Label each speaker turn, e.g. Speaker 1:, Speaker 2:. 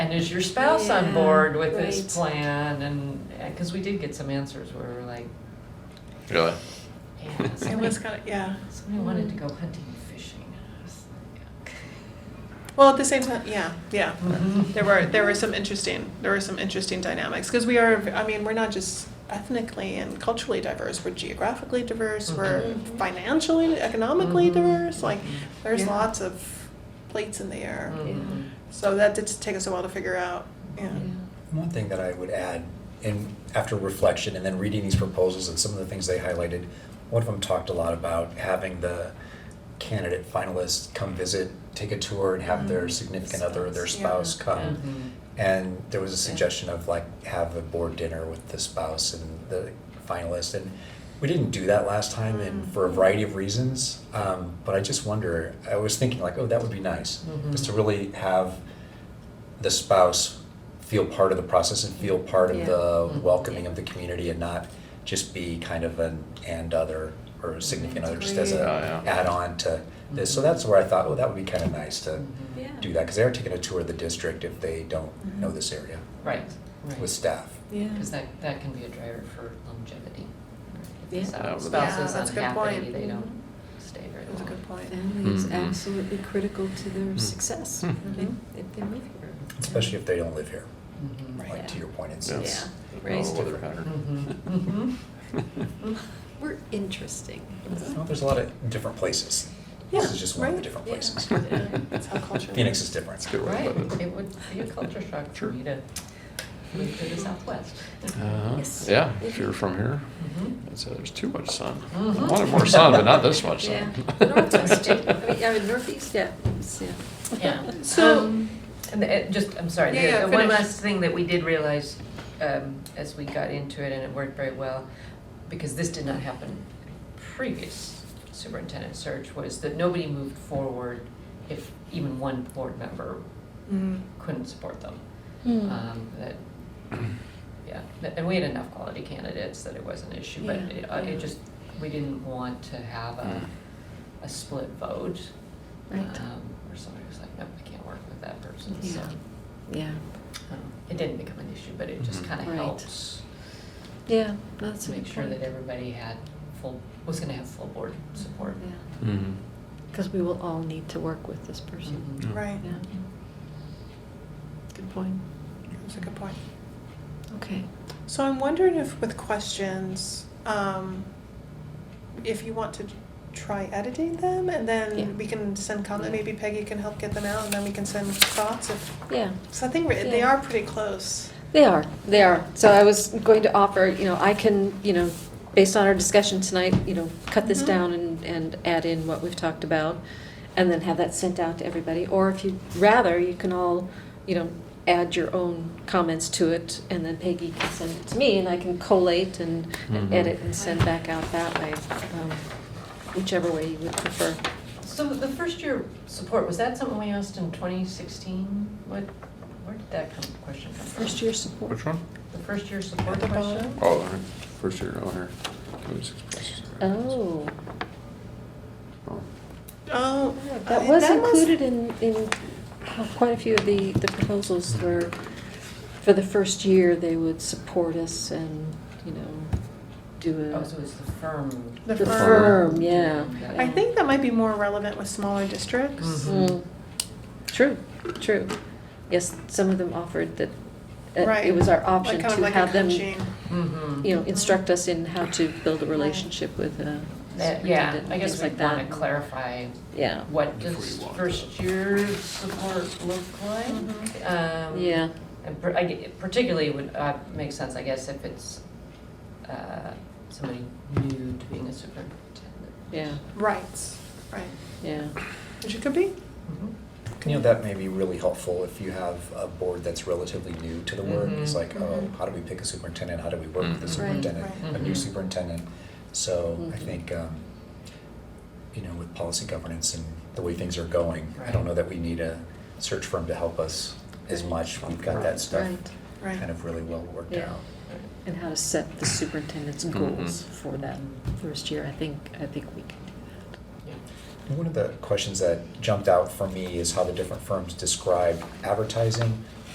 Speaker 1: and is your spouse on
Speaker 2: Yeah,
Speaker 1: board with this
Speaker 2: right.
Speaker 1: plan? And, because we did get some answers where we were like,
Speaker 3: Really?
Speaker 1: yeah,
Speaker 2: It was
Speaker 1: somebody,
Speaker 2: kind of, yeah.
Speaker 1: somebody wanted to go hunting and fishing. I was like,
Speaker 2: Well, at the same time, yeah, yeah.
Speaker 1: Mhm.
Speaker 2: There were there were some interesting there were some interesting dynamics because we are I mean we're not just ethnically and culturally diverse we're geographically diverse we're
Speaker 1: Mhm.
Speaker 2: financially economically
Speaker 1: Mhm.
Speaker 2: diverse like there's
Speaker 1: Yeah.
Speaker 2: lots of plates in the air
Speaker 1: Mhm.
Speaker 2: so that did take us a while to figure out yeah
Speaker 1: Mm-hmm.
Speaker 4: One thing that I would add, and after reflection and then reading these proposals and some of the things they highlighted, one of them talked a lot about having the candidate finalists come visit, take a tour, and have their significant other or their spouse
Speaker 2: Mm-hmm. Yeah.
Speaker 4: come.
Speaker 1: Mhm.
Speaker 4: And there was a suggestion of like have a board dinner with the spouse and the finalist, and we didn't do that last time, and
Speaker 2: Mm.
Speaker 4: for a variety of reasons. Um, but I just wonder. I was thinking like, oh, that would be nice,
Speaker 1: Mhm.
Speaker 4: just to really have the spouse feel part of the process and feel part of
Speaker 5: Yeah.
Speaker 4: the
Speaker 1: Mhm.
Speaker 4: welcoming of the community, and not just be kind of an and other or a significant other, just as a
Speaker 3: Oh, Yeah, yeah.
Speaker 4: add-on to this. So that's where I thought, oh, that would be kind of nice to
Speaker 1: Mhm.
Speaker 5: Yeah.
Speaker 4: do that because they're taking a tour of the district if they don't know this area
Speaker 1: Right, right.
Speaker 4: with staff.
Speaker 5: Yeah.
Speaker 1: Because that, that can be a driver for longevity. right? If the
Speaker 5: Yeah.
Speaker 3: Yeah,
Speaker 1: spouse-
Speaker 3: but
Speaker 1: Spouse is
Speaker 2: that's a good
Speaker 1: unhappy,
Speaker 2: point.
Speaker 1: they don't stay very long.
Speaker 2: that's a good point
Speaker 5: Family is
Speaker 3: Mhm.
Speaker 5: absolutely critical to their
Speaker 3: Mm.
Speaker 5: success
Speaker 3: Mhm.
Speaker 5: if if they move here.
Speaker 4: Especially if they don't live here,
Speaker 1: Mhm.
Speaker 5: Right.
Speaker 4: like to your point, it's,
Speaker 3: Yeah.
Speaker 4: it's-
Speaker 5: Right.
Speaker 3: Oh, weather pattern. Mm-hmm.
Speaker 1: Mhm,
Speaker 5: Mm-hmm. We're interesting.
Speaker 4: well, there's a lot of different places.
Speaker 2: yeah
Speaker 4: This is just one of the
Speaker 2: right?
Speaker 4: different
Speaker 5: Mm-hmm. Yeah.
Speaker 4: places.
Speaker 5: Yeah.
Speaker 2: that's how culture
Speaker 4: Phoenix is
Speaker 3: That's
Speaker 4: different.
Speaker 3: a good way to put
Speaker 1: Right,
Speaker 3: it.
Speaker 1: it would be a culture shock for me to move to the southwest.
Speaker 3: Uh-huh.
Speaker 5: Yes.
Speaker 3: Yeah, if you're from here,
Speaker 1: Mhm.
Speaker 3: I'd say there's too much sun.
Speaker 1: Mhm.
Speaker 3: I wanted more sun, but not this much
Speaker 5: Mm-hmm. Yeah,
Speaker 3: sun.
Speaker 5: The northwest, I mean, I mean, northeast, yeah, it's, yeah.
Speaker 1: Yeah.
Speaker 2: So-
Speaker 1: Um, And the- it just, I'm sorry,
Speaker 2: Yeah, yeah,
Speaker 1: the- the one
Speaker 2: finish.
Speaker 1: last thing that we did realize um, as we got into it, and it worked very well, because this did not happen in previous superintendent search, was that nobody moved forward if even one board member
Speaker 2: Mm.
Speaker 1: couldn't support them.
Speaker 2: Hmm.
Speaker 5: Mm.
Speaker 1: Um, That,
Speaker 3: Mm.
Speaker 1: yeah, that- and we had enough quality candidates that it was an issue, but
Speaker 5: Yeah,
Speaker 1: it- uh,
Speaker 5: yeah.
Speaker 1: it just, we didn't want to have a,
Speaker 3: Mm.
Speaker 1: a split vote.
Speaker 5: Right.
Speaker 1: um, Where somebody was like, nope, I can't work with that person, so.
Speaker 5: Yeah. Yeah,
Speaker 1: um, It didn't become an issue, but it just
Speaker 3: Mhm.
Speaker 1: kind of
Speaker 5: Right.
Speaker 1: helps
Speaker 5: yeah, that's
Speaker 1: to
Speaker 5: a good
Speaker 1: make sure that
Speaker 5: point.
Speaker 1: everybody had full, was gonna have full board support.
Speaker 5: Yeah,
Speaker 3: Mhm.
Speaker 5: because we will all need to work with this
Speaker 1: Mm-hmm.
Speaker 5: person.
Speaker 1: Mm.
Speaker 3: Yeah.
Speaker 2: right
Speaker 5: Yeah, good point.
Speaker 2: that's a good point
Speaker 5: Okay.
Speaker 2: So I'm wondering if with questions, um, if you want to try editing them and then
Speaker 5: Yeah.
Speaker 2: we can send comment,
Speaker 1: Yeah.
Speaker 2: maybe Peggy can help get them out and then we can send thoughts if,
Speaker 5: Yeah,
Speaker 2: so I think we're- they
Speaker 5: Yeah.
Speaker 2: are pretty close.
Speaker 5: They are, they are. So I was going to offer, you know, I can, you know, based on our discussion tonight, you know, cut this
Speaker 2: Mhm.
Speaker 5: down and, and add in what we've talked about, and then have that sent out to everybody. Or if you'd rather, you can all, you know, add your own comments to it, and then Peggy can send it to me, and I can collate and and
Speaker 3: Mhm.
Speaker 5: edit and send back out that way, um, whichever way you would prefer.
Speaker 1: So the first year support, was that something we asked in twenty sixteen? What, where did that come, question come from?
Speaker 5: First year support.
Speaker 3: Which one?
Speaker 1: The first year support
Speaker 2: At the
Speaker 1: question?
Speaker 2: bottom.
Speaker 3: Oh, all right. first year, oh, here. 26 places.
Speaker 5: Oh,
Speaker 3: Oh.
Speaker 2: Oh,
Speaker 5: Uh, that
Speaker 2: I-
Speaker 5: was included in, in quite a few of the, the proposals were, for the first year, they would support us and, you know, do
Speaker 1: Oh, so
Speaker 5: a.
Speaker 1: it's the firm.
Speaker 2: The
Speaker 5: The
Speaker 2: firm.
Speaker 5: firm, yeah.
Speaker 2: I think that might be more relevant with smaller districts.
Speaker 1: Mhm.
Speaker 5: Mm. True, true. Yes, some of them offered that, that
Speaker 2: Right.
Speaker 5: it was our
Speaker 2: Like
Speaker 5: option
Speaker 2: kind of
Speaker 5: to
Speaker 2: like a
Speaker 5: have them,
Speaker 2: coaching.
Speaker 1: Mm-hmm.
Speaker 5: you know, instruct us in how to build a relationship with a
Speaker 1: Yeah,
Speaker 5: superintendent
Speaker 1: I
Speaker 5: and
Speaker 1: guess
Speaker 5: things
Speaker 1: we
Speaker 5: like that.
Speaker 1: want to clarify,
Speaker 5: Yeah,
Speaker 1: what
Speaker 3: Before
Speaker 1: does
Speaker 3: you walk
Speaker 1: first year support look like? Um,
Speaker 5: yeah,
Speaker 1: And par- I g- particularly would uh, make sense, I guess, if it's uh, somebody new to being a superintendent.
Speaker 5: yeah,
Speaker 2: Right, right,
Speaker 5: yeah.
Speaker 2: which it could be.
Speaker 1: Mhm.
Speaker 4: You know, that may be really helpful if you have a board that's relatively new to the work. It's
Speaker 1: Mhm.
Speaker 4: like, oh,
Speaker 2: Mhm.
Speaker 4: how do we pick a superintendent? How do we work with the
Speaker 5: Right,
Speaker 3: Mhm.
Speaker 4: superintendent?
Speaker 1: right.
Speaker 4: A new
Speaker 1: Mhm.
Speaker 4: superintendent. So I
Speaker 5: Mhm.
Speaker 4: think, um, you know, with policy governance and the way things are going, I don't
Speaker 1: Right.
Speaker 4: know that we need a search firm to help us as
Speaker 5: Right.
Speaker 4: much. We've got that stuff
Speaker 5: Right.
Speaker 2: Right.
Speaker 4: kind of really well worked
Speaker 5: Yeah.
Speaker 4: out.
Speaker 5: And how to set the superintendent's
Speaker 3: Mhm.
Speaker 5: goals for that first year, I think, I think we can do
Speaker 1: Yeah.
Speaker 4: One of the questions that jumped out for me is how the different firms describe advertising